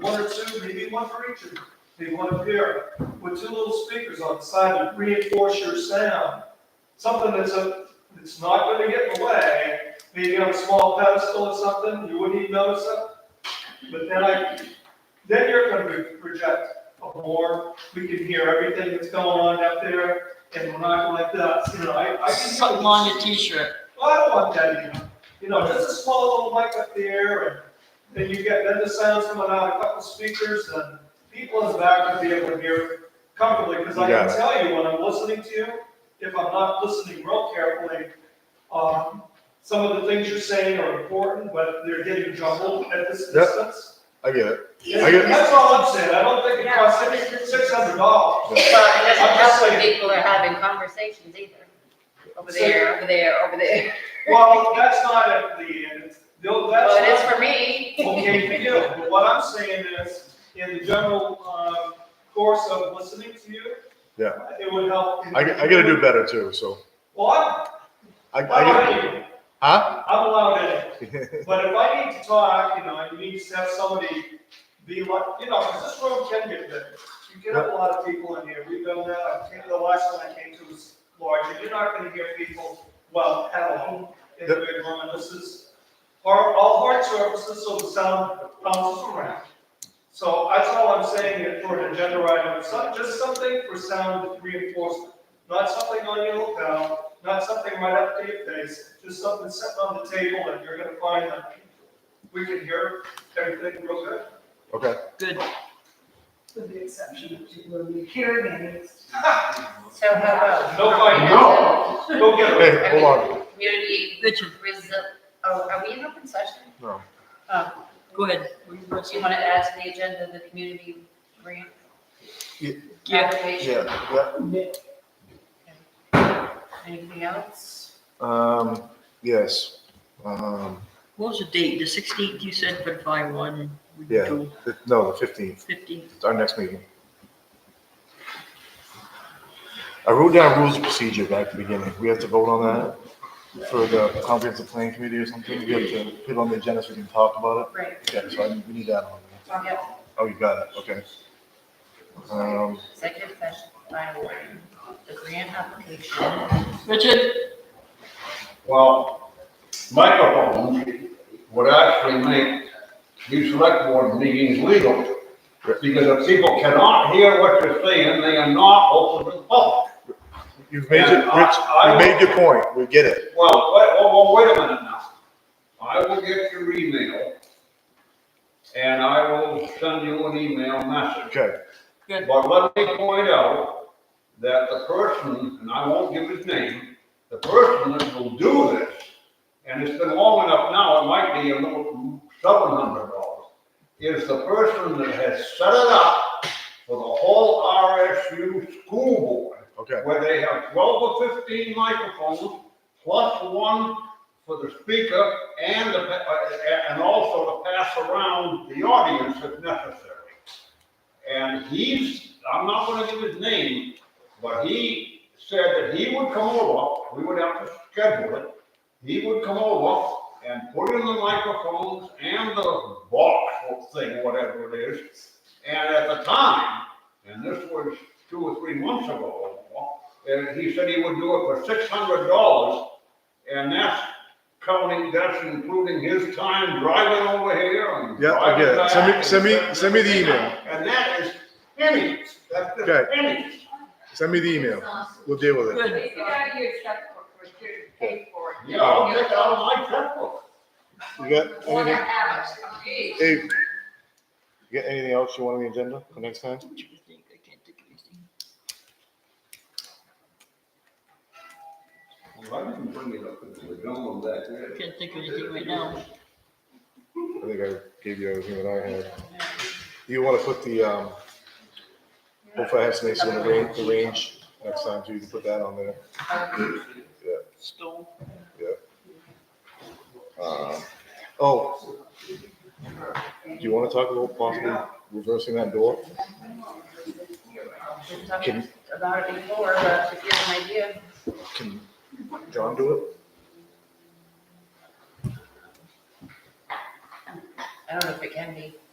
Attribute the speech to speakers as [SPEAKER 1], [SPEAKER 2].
[SPEAKER 1] one or two, maybe one for each of you, maybe one up here, with two little speakers on the side to reinforce your sound. Something that's a, that's not gonna get in the way, maybe on a small pedestal or something, you wouldn't even notice it. But then I, then you're gonna re- project more, we can hear everything that's going on up there, and we're not like that, you know, I, I can.
[SPEAKER 2] Something on your t-shirt.
[SPEAKER 1] Well, I don't want that, you know, you know, just a small little mic up there, and then you get, then the sound's coming out, a couple speakers, and people in the back will be able to hear comfortably, because I
[SPEAKER 3] You got
[SPEAKER 1] can tell you when I'm listening to you, if I'm not listening real carefully, um, some of the things you're saying are important, but they're getting jumbled at this
[SPEAKER 3] Yep.
[SPEAKER 1] distance.
[SPEAKER 3] I get it. I get-
[SPEAKER 1] That's all I'm saying, I don't think it costs six, six hundred dollars.
[SPEAKER 4] Well, it doesn't
[SPEAKER 1] I'm just
[SPEAKER 4] help when
[SPEAKER 1] saying.
[SPEAKER 4] people are having conversations either. Over
[SPEAKER 1] So-
[SPEAKER 4] there, over there, over there.
[SPEAKER 1] Well, that's not at the end, No, that's.
[SPEAKER 4] Well, it
[SPEAKER 1] not-
[SPEAKER 4] is for me.
[SPEAKER 1] okay for you. But what I'm saying is, in the general um, course of listening to you,
[SPEAKER 3] Yeah.
[SPEAKER 1] it would help.
[SPEAKER 3] I, I gotta do better too, so.
[SPEAKER 1] What?
[SPEAKER 3] I, I,
[SPEAKER 1] I'm allowed
[SPEAKER 3] get-
[SPEAKER 1] in.
[SPEAKER 3] huh?
[SPEAKER 1] I'm allowed in. But if I need to talk, you know, and you need to have somebody be like, you know, 'cause this room can get big. You get a lot of people in here. We've done that. I think the last one I came to was large. And you're not gonna hear people, well, at all in the big room. And this is, hard- all hard surfaces, so the sound bounces around. So that's all I'm saying it for an agenda item, some, just something for sound reinforcement. Not something on your lapel, not something right up to your face, just something sitting on the table and you're gonna find that we can hear everything real good.
[SPEAKER 3] Okay.
[SPEAKER 2] Good.
[SPEAKER 5] With the exception of two little hearing aids.
[SPEAKER 4] So how about?
[SPEAKER 1] No fighting.
[SPEAKER 4] No.
[SPEAKER 1] Go get it.
[SPEAKER 3] Hey, hold on.
[SPEAKER 4] Community
[SPEAKER 2] Richard,
[SPEAKER 4] resi, oh, are we in open session?
[SPEAKER 3] No.
[SPEAKER 4] Um,
[SPEAKER 2] go ahead. What you gonna
[SPEAKER 4] do you
[SPEAKER 2] say?
[SPEAKER 4] want to add to the agenda the community grant?
[SPEAKER 3] Yeah.
[SPEAKER 2] Yeah.
[SPEAKER 4] Application,
[SPEAKER 3] Yeah, yeah.
[SPEAKER 4] anything else?
[SPEAKER 3] Um, yes. Um,
[SPEAKER 2] What was the date? The sixteenth you said for the fire one? we
[SPEAKER 3] Yeah.
[SPEAKER 2] do
[SPEAKER 3] the- no, the fifteenth,
[SPEAKER 2] Fifteenth.
[SPEAKER 3] it's our next meeting. I wrote down rules of procedure back at the beginning. We have to vote on that for the comprehensive plan committee or something. We have to put it on the agenda so we can talk about
[SPEAKER 4] Right,
[SPEAKER 3] it. Okay, so I, we need that on. there.
[SPEAKER 4] yeah,
[SPEAKER 3] Oh, you got it, okay. Um,
[SPEAKER 4] executive session, final warning, the grant application.
[SPEAKER 2] Richard,
[SPEAKER 6] Well, microphones would actually make these select board meetings legal. Because if people cannot hear what you're saying, they are not open to the public.
[SPEAKER 3] You've made your,
[SPEAKER 6] And I-
[SPEAKER 3] Rich,
[SPEAKER 6] I
[SPEAKER 3] you
[SPEAKER 6] will-
[SPEAKER 3] made your point. We get it.
[SPEAKER 6] Well, wait, oh, well, wait a minute now. I will get your email and I will send you an email message.
[SPEAKER 3] Okay,
[SPEAKER 6] But let me point out that the person, and I won't give his name, the person that will do this, and it's been long enough now, it might be a little seven hundred dollars, is the person that has set it up for the whole RSU school board,
[SPEAKER 3] okay.
[SPEAKER 6] where they have twelve or fifteen microphones, plus one for the speaker and the, pa- and also to pass around the audience if necessary. And he's, I'm not gonna give his name, but he said that he would come over, we would have to schedule it. He would come over and put in the microphones and the box or thing, whatever it is. And at the time, and this was two or three months ago, and he said he would do it for six hundred dollars. And that's counting, that's including his time driving over here and
[SPEAKER 3] Yeah, I get
[SPEAKER 6] driving
[SPEAKER 3] it.
[SPEAKER 6] back.
[SPEAKER 3] Send me,
[SPEAKER 6] and
[SPEAKER 3] send me,
[SPEAKER 6] setting
[SPEAKER 3] send me the
[SPEAKER 6] everything up.
[SPEAKER 3] email.
[SPEAKER 6] And that is pennies, that's
[SPEAKER 3] Okay.
[SPEAKER 6] just pennies.
[SPEAKER 3] Send me the email. We'll deal with it.
[SPEAKER 2] good.
[SPEAKER 7] It's out of your checkbook, but you paid for it.
[SPEAKER 6] Yeah, I'll take out of my checkbook.
[SPEAKER 3] You got
[SPEAKER 7] One
[SPEAKER 3] anything?
[SPEAKER 7] hour, okay.
[SPEAKER 3] Hey, you got anything else you want on the agenda for next time?
[SPEAKER 2] What you think? I can't think of anything.
[SPEAKER 6] Well, I didn't bring it up until the gentleman back there.
[SPEAKER 2] I Can't think of anything right now.
[SPEAKER 3] I think I gave you everything that I had. You want to put the, um, hopefully I have some in the range, the range next time too. You can put that on there.
[SPEAKER 2] Stone.
[SPEAKER 3] Um, Oh. Do you want to talk about possibly reversing that door?
[SPEAKER 4] Been talking about it before, but to give an idea,
[SPEAKER 3] Can John do it?
[SPEAKER 4] I don't know if it can be.